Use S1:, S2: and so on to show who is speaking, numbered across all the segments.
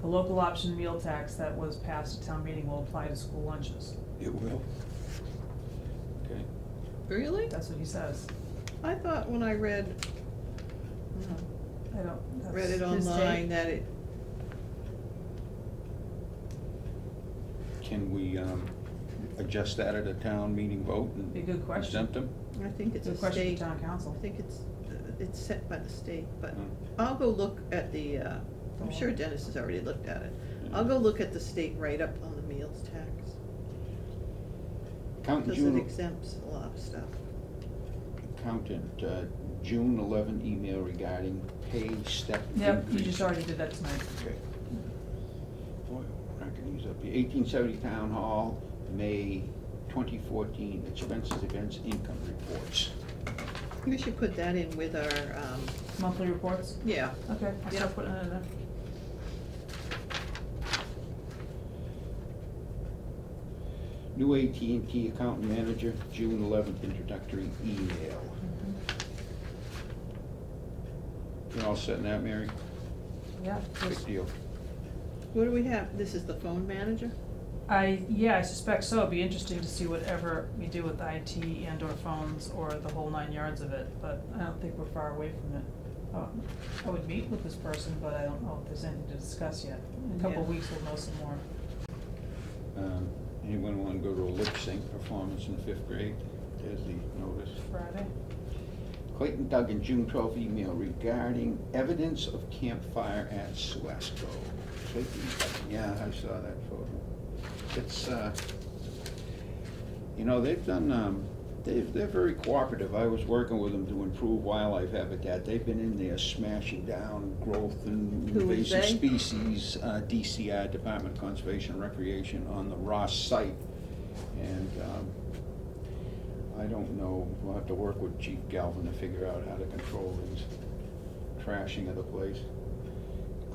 S1: The local option meal tax that was passed at town meeting will apply to school lunches.
S2: It will. Okay.
S3: Really?
S1: That's what he says.
S3: I thought when I read, no,
S1: I don't. that's
S3: read it
S1: his take.
S3: online that it,
S2: Can we um, adjust that at a town meeting vote and
S1: Be a good question.
S2: exempt them?
S3: I think
S1: It's
S3: it's a
S1: a question
S3: state,
S1: for
S3: I
S1: town council.
S3: think it's, uh, it's set by the state, but
S2: Mm.
S3: I'll go look at the, uh, I'm
S1: Oh.
S3: sure Dennis has already looked at it.
S2: Hmm.
S3: I'll go look at the state write-up on the meals tax,
S2: Accountant
S3: because it
S2: June,
S3: exempts a lot of stuff.
S2: accountant, uh, June 11 email regarding pay step
S1: Yep, you
S2: increase.
S1: just already did that tonight.
S2: Okay. Boy, we're not gonna use up the eighteen seventy town hall, May twenty fourteen expenses against income reports.
S3: We should put that in with our, um,
S1: Monthly reports?
S3: yeah,
S1: Okay, I
S3: Yeah.
S1: start putting it in there.
S2: New AT&T account manager, June eleventh introductory email. You all set in that, Mary?
S1: Yeah,
S2: Big deal.
S3: what do we have, this is the phone manager?
S1: I, yeah, I suspect so. It'd be interesting to see whatever we do with IT and or phones or the whole nine yards of it, but I don't think we're far away from it. Um, I would meet with this person, but I don't know if there's anything to discuss yet. In a couple of
S3: Yeah.
S1: weeks, we'll know some more.
S2: Um, Anyone wanna go to a lip sync performance in fifth grade? There's the notice.
S1: Friday?
S2: Clayton Duggan, June twelfth email regarding evidence of campfire at Suasco. Clayton, Duggan, yeah, I saw that photo. It's, uh, you know, they've done, um, they've, they're very cooperative. I was working with them to improve wildlife habitat. They've been in there smashing down growth and
S3: Who is
S2: invasive
S3: they?
S2: species, uh, DCI, Department of Conservation and Recreation, on the Ross site. And, um, I don't know, we'll have to work with Chief Galvin to figure out how to control these trashing of the place.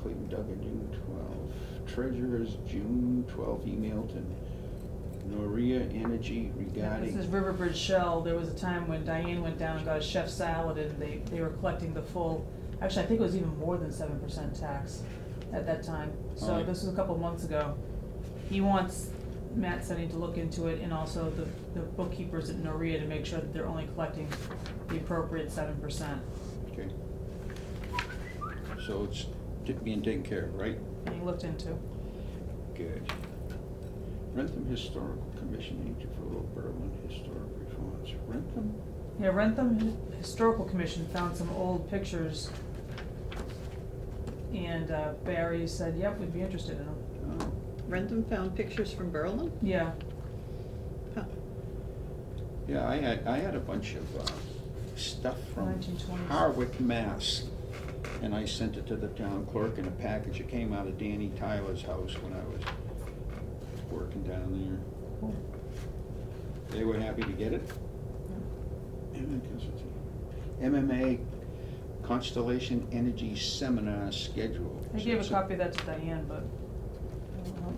S2: Clayton Duggan, June twelve. Treasurer's June twelve email to Noria Energy
S1: This is
S2: regarding,
S1: Riverbridge Shell. There was a time when Diane went down and got a chef salad and they, they were collecting the full, actually, I think it was even more than seven percent tax at that time. So
S2: Alright.
S1: this was a couple months ago. He wants Matt Sunny to look into it and also the, the bookkeepers at Noria to make sure that they're only collecting the appropriate seven percent.
S2: okay. So it's t- being taken care of, right?
S1: And he looked into.
S2: Good. Rentham Historical Commission, Agent for Little Berlin Historic Reforms. Rentham?
S1: Yeah, Rentham Hi- Historical Commission found some old pictures. And uh, Barry said, yep, we'd be interested in them.
S2: Oh,
S3: Rentham found pictures from Berlin?
S1: Yeah,
S3: Huh.
S2: Yeah, I had, I had a bunch of uh, stuff from
S1: 1920s.
S2: Harwick, Mass. And I sent it to the town clerk in a package. It came out of Danny Tyler's house when I was working down
S1: cool.
S2: there. They were happy to get it. And I guess it's- MMA Constellation Energy Seminar Schedule.
S1: I gave a
S2: So-
S1: copy of that to Diane, but I don't know.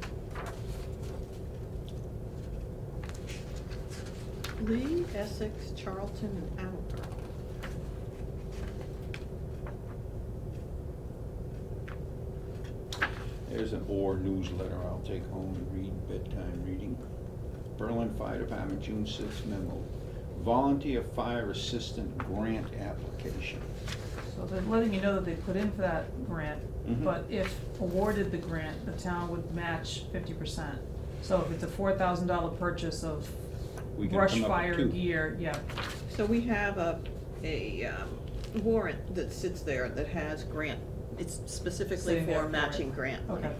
S3: Lee, Essex, Charlton, and Attleboro.
S2: There's an OR newsletter I'll take home and read bedtime reading. Berlin Fire Department, June sixth memo. Volunteer Fire Assistant Grant Application.
S1: So they're letting you know that they put in for that grant,
S2: Mhm.
S1: but if awarded the grant, the town would match fifty percent. So if it's a four thousand dollar purchase of
S2: We can
S1: brush
S2: come up with
S1: fire
S2: two.
S1: gear, yeah,
S3: So we have a, a um, warrant that sits there that has grant, it's specifically
S1: Sitting there
S3: for
S1: for it.
S3: matching grant money.
S1: okay.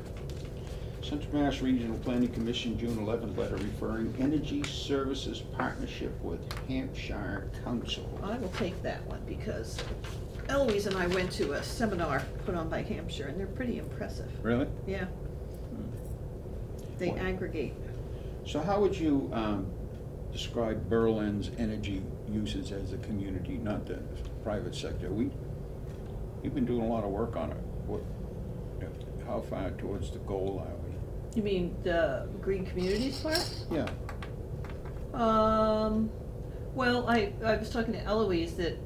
S2: Central Mass Regional Planning Commission, June eleventh letter referring Energy Services Partnership with Hampshire Council.
S3: I will take that one because Eloise and I went to a seminar put on by Hampshire and they're pretty impressive,
S2: Really?
S3: yeah. They
S2: What?
S3: aggregate,
S2: So how would you, um, describe Berlin's energy uses as a community, not the private sector? We, you've been doing a lot of work on it. What, how far towards the goal are
S3: you mean the green communities part?
S2: we? Yeah,
S3: Um, well, I, I was talking to Eloise that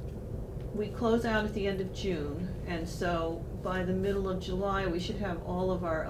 S3: we close out at the end of June, and so by the middle of July, we should have all of our